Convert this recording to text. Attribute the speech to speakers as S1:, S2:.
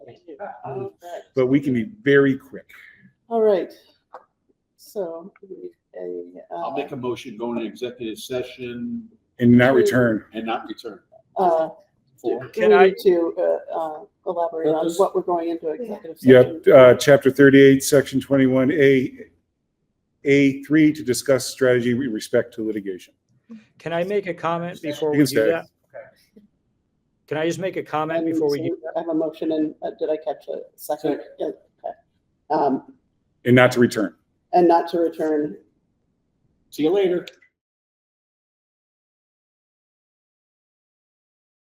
S1: I love that.
S2: but we can be very quick.
S1: All right. So, we need a,
S3: I'll
S1: uh,
S3: make a motion, go into executive session
S2: And not return.
S3: and not return.
S1: uh,
S3: Four.
S1: we
S4: Can I-
S1: need to, uh, uh, elaborate on
S3: Does-
S1: what we're going into executive session.
S2: Yep, uh, chapter thirty-eight, section twenty-one, A, A three, to discuss strategy with respect to litigation.
S4: Can I make a comment before
S2: You
S4: we
S2: can
S4: do
S2: stay.
S4: that? Can I just make a comment
S1: And
S4: before we,
S1: so I have a motion and, uh, did I catch a second? Yeah, okay. Um,
S2: And not to return.
S1: and not to return.
S3: See you later.